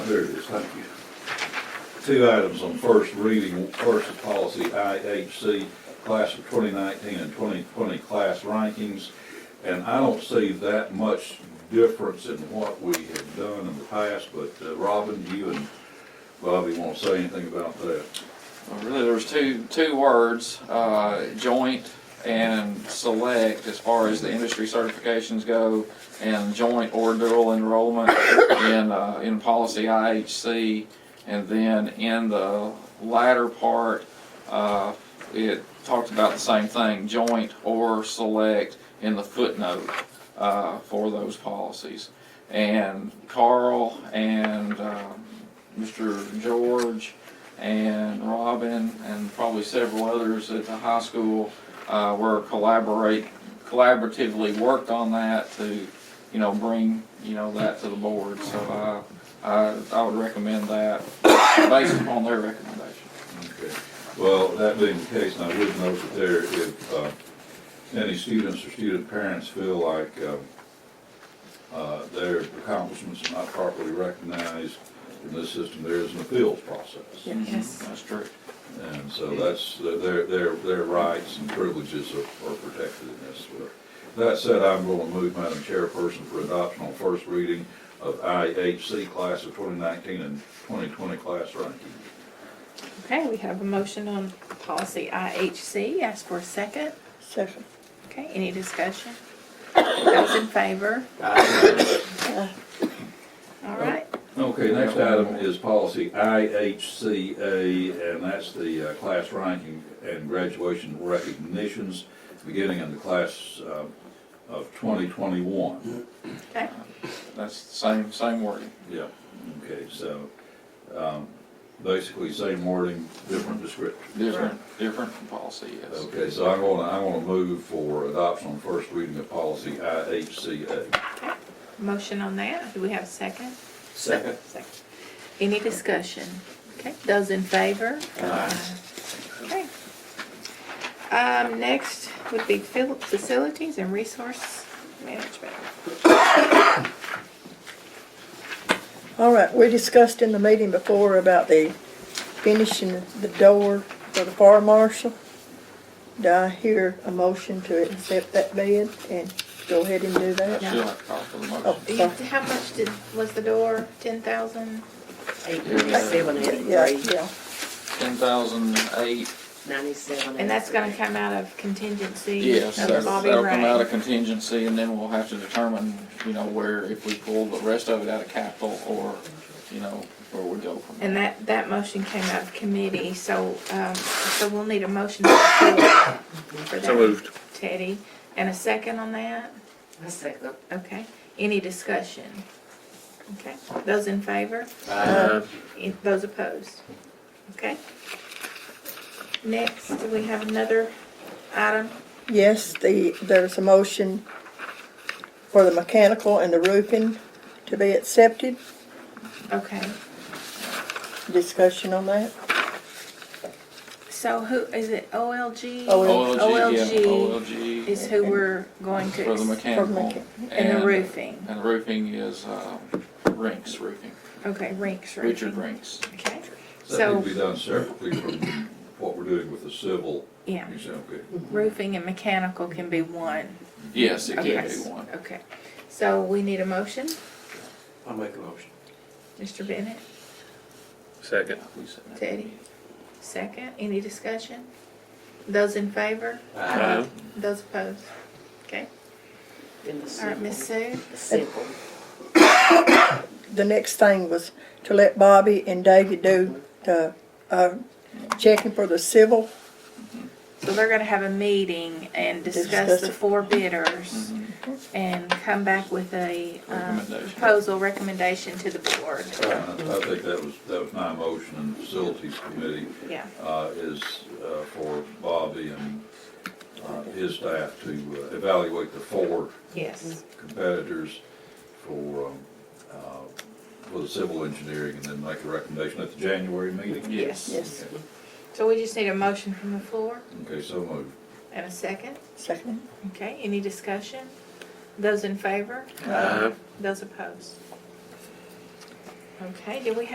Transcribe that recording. There it is, thank you. Two items on first reading, first is policy IHC, class of twenty nineteen and twenty twenty class rankings. And I don't see that much difference in what we have done in the past, but uh, Robin, you and Bobby want to say anything about that? Well, Really, there's two, two words, uh, joint and select, as far as the industry certifications go, and joint or dual enrollment in, uh, in policy IHC. And then in the latter part, uh, it talked about the same thing, joint or select in the footnote, uh, for those policies. And Carl and, um, Mr. George and Robin and probably several others at the high school uh, were collaborate, collaboratively worked on that to, you know, bring, you know, that to the board. So I, I, I would recommend that based upon their recommendation. Okay. Well, that being the case, and I would note that there, if uh, any students or student parents feel like uh, uh, their accomplishments are not properly recognized in this system, there is an appeals process. Yes. That's true. And so that's, their, their, their rights and privileges are are protected in this. That said, I'm going to move, Madam Chairperson, for adoption on first reading of IHC class of 2019 and 2020 class ranking. Okay, we have a motion on policy IHC. Ask for a second. Second. Okay, any discussion? Those in favor? All right, Okay, next item is policy IHCA, and that's the uh, class ranking and graduation recognitions, beginning in the class uh, of 2021. okay, That's the same, same wording. Yeah, okay, so um, basically same wording, different description. Different, different from policy, yes. Okay, so I'm gonna, I'm gonna move for adoption on first reading of policy IHCA. motion on that. Do we have a second? Second. Second. Any discussion? Okay, those in favor? Okay. Um, next would be fil- facilities and resource management. All right, we discussed in the meeting before about the finishing the door for the fire marshal. Do I hear a motion to accept that bid and go ahead and do I that? still have to call for the Oh, motion. Do you, sorry. how much did, was the door? Ten thousand? Eighty-seven, Yeah, eighty-three, yeah, Ten thousand eight, ninety-seven. And that's gonna come out of contingency? yes, of that's- Bobby that'll come Ray. out of contingency and then we'll have to determine, you know, where, if we pull the rest of it out of capital or, you know, where we go from there. And that, that motion came out of committee, so, um, so we'll need a motion to approve for that. So moved. Teddy, and a second on that? A second. Okay, any discussion? Okay, those in favor? Uh, Any- Those opposed? Okay. Next, do we have another item? yes, the, there's a motion for the mechanical and the roofing to be accepted. Okay, Discussion on that? so who, is it OLG? OLG. OLG, yeah, OLG OLG is who we're going for the to, ex- For the mechanical. mechan- and the roofing, And roofing is, uh, Rinks Roofing, okay, Rinks Roofing. Richard Rinks. Okay, That so, would be done separately from what we're doing with the civil, yeah, you say, okay? roofing and mechanical can be one. Yes, it Okay. can be one. Okay, so we need a motion, I'll make a motion. Mr. Bennett, Second. Teddy, second, any discussion? Those in favor? Uh, Those opposed? Okay, all right, Miss Sue, Simple. the next thing was to let Bobby and David do the, uh, checking for the civil. so they're gonna have a meeting and discuss Discuss the it. Mm-hmm. four bidders and come back with a, um, Recommendation. proposal recommendation to the board, I I think that was, that was my motion in the facilities committee, yeah. uh, is uh, for Bobby and uh, his staff to uh, evaluate the four Yes, competitors for, um, uh, for the civil engineering and then make a recommendation at the January meeting. Yes. Yes, so we just need a motion from the floor Okay, so moved. and a second. second. Okay, any discussion? Those in favor? uh, Those opposed? Okay, do we have